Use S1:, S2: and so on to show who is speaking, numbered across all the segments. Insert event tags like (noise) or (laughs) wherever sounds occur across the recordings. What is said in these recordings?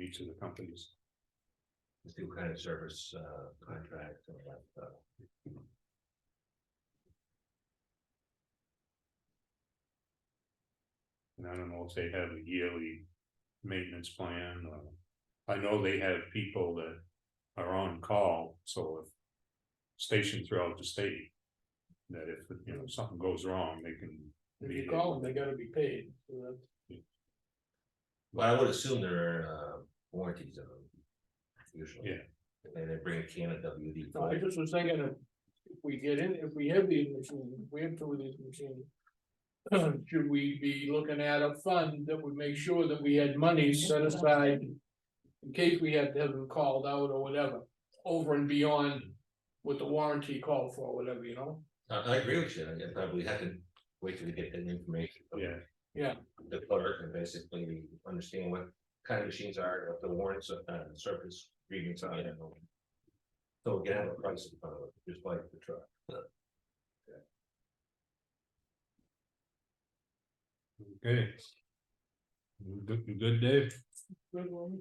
S1: each of the companies.
S2: Let's do kind of service, uh, contract and all that uh, stuff.
S1: And I don't know if they have a yearly maintenance plan or, I know they have people that are on call, so if. Stationed throughout the state, that if, you know, something goes wrong, they can.
S3: If
S1: be
S3: you
S1: hit.
S3: call them, they gotta be paid, so that's.
S2: But I would assume there are, uh, warranties on them. Usually.
S1: Yeah.
S2: And they bring a can of WD
S3: No, I
S2: forty.
S3: just was thinking if, if we get in, if we have these machines, if we have two of these machines. (clears throat) Should we be looking at a fund that would make sure that we had money set aside? In case we had to have them called out or whatever, over and beyond what the warranty called for, whatever, you know?
S2: I, I agree with you, I probably have to wait till we get that information. from
S1: Yeah.
S3: Yeah.
S2: The clerk and basically understand what kind of machines are, what the warrants, uh, service agreements are, I don't know. So we can have a price, in front of it, just like the truck.
S1: Okay. You Good, you good, Dave?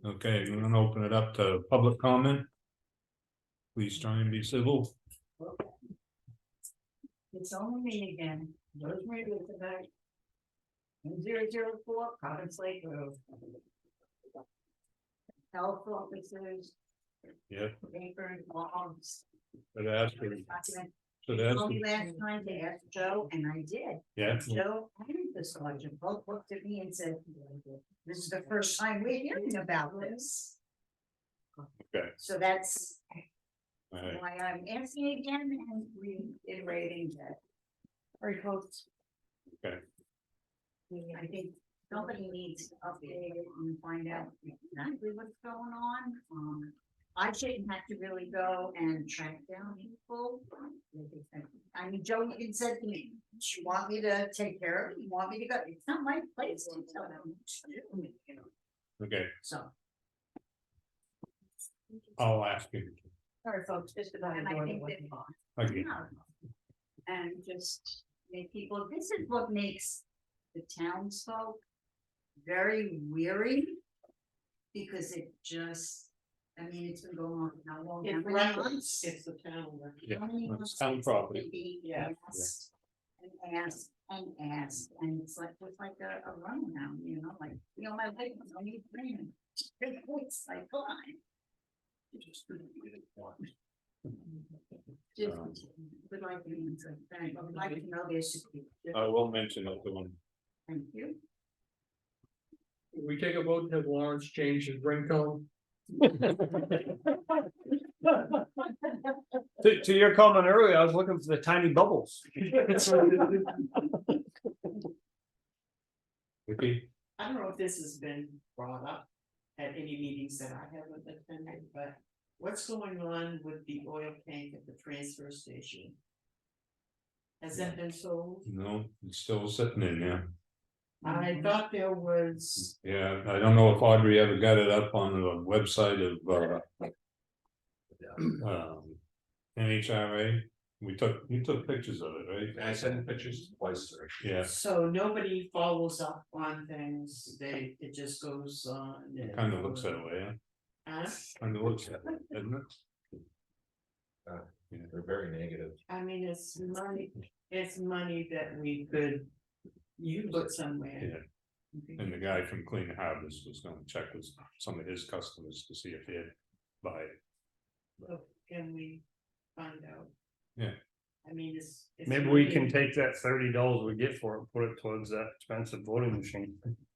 S1: Okay, we're gonna open it up to public comment. Please try and be civil.
S4: It's only me again, Rosemary Elizabeth. Zero zero four, Providence Lake Road. Health officers.
S1: Yeah.
S4: Papers, logs.
S1: Should ask, her-
S4: documents.
S1: should ask, her-
S4: Only last time they asked Joe and I did.
S1: yeah,
S4: Joe and the sergeant both looked at me and said, this is the first time we're hearing about this.
S1: Okay.
S4: So that's
S1: all right.
S4: why I'm asking again and reiterating that. Very close.
S1: Okay.
S4: I think somebody needs to update it and find out exactly what's going on. Um, I shouldn't have to really go and track down people. I mean, Joe even said to me, "Do you want me to take care of it? You want me to go? It's not my place to tell them what to do, you know,
S1: okay,
S4: so.
S1: I'll ask you
S4: Sorry, folks, just about. And I think that
S1: again.
S4: and just make people, this is what makes the townsfolk very weary. Because it just, I mean, it's been going on for how long? How
S5: It's
S4: many months?
S5: reckless, it's the town. record.
S1: Yeah,
S4: How many
S1: it's
S4: months
S1: town
S4: it's
S1: property.
S4: been being
S5: Yeah.
S4: asked And asked and asked, and it's like, it's like a, a runaround, you know, like, you know, my leg was on your brain. It's like, come on. Just
S1: Um,
S4: would like to, answer that. I would like to know their security.
S1: I will mention that the one,
S4: Thank you.
S3: If We take a vote to have Lawrence change his ringtone. (laughs)
S6: To, to your comment earlier, I was looking for the tiny bubbles.
S1: okay?
S5: I don't know if this has been brought up at any meetings that I haven't attended, but what's going on with the oil tank at the transfer station? Has that been sold?
S1: No, it's still sitting in there. Mm-hmm.
S5: I thought there was,
S1: Yeah, I don't know if Audrey ever got it up on the website of, uh. Um, NHRA, we took, you took pictures of it, right?
S2: I sent pictures twice, or
S1: Yeah,
S5: so nobody follows up on things, they, it just goes on.
S1: it
S5: and-
S1: kind of looks that way, yeah,
S5: Huh?
S1: kind of looks that way, doesn't it?
S2: they're very negative.
S5: I mean, it's money, it's money that we could, you put somewhere.
S1: And the guy from Clean Harbors was gonna check with some of his customers to see if they'd buy it.
S5: Well, Can we find out?
S1: Yeah.
S5: I mean, it's. it's
S6: Maybe we
S5: money.
S6: can take that thirty dollars we get for it, put it towards that expensive voting machine.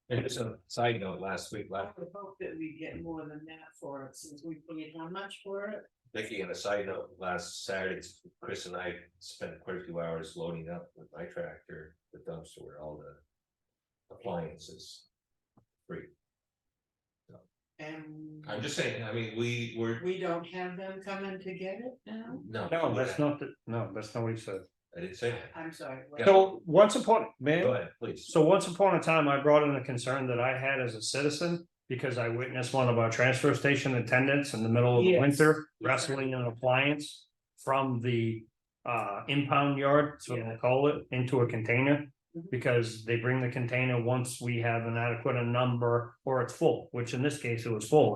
S2: And just a side note, last week,
S5: I
S2: last
S5: would hope that we get more than that for it, since we paid how much for it?
S2: Vicky, on a side note, last Saturday, Chris and I spent quite a few hours loading up with my tractor, the dumpster, where all the appliances. Free.
S5: And
S2: I'm just saying, I mean, we were,
S5: we don't have them coming to get it now?
S2: no.
S6: No, that's not the, no, that's not what he said.
S2: I didn't say that.
S5: I'm sorry. what?
S6: So once upon,
S2: Go
S6: man,
S2: ahead, please.
S6: so once upon a time, I brought in a concern that I had as a citizen. Because I witnessed one of our transfer station attendants in the middle of the
S5: Yes.
S6: winter wrestling an appliance. From the uh impound yard, so
S5: Yeah.
S6: they call it, into a container.
S5: Mhm.
S6: Because they bring the container once we have an adequate number or it's full, which in this case it was full.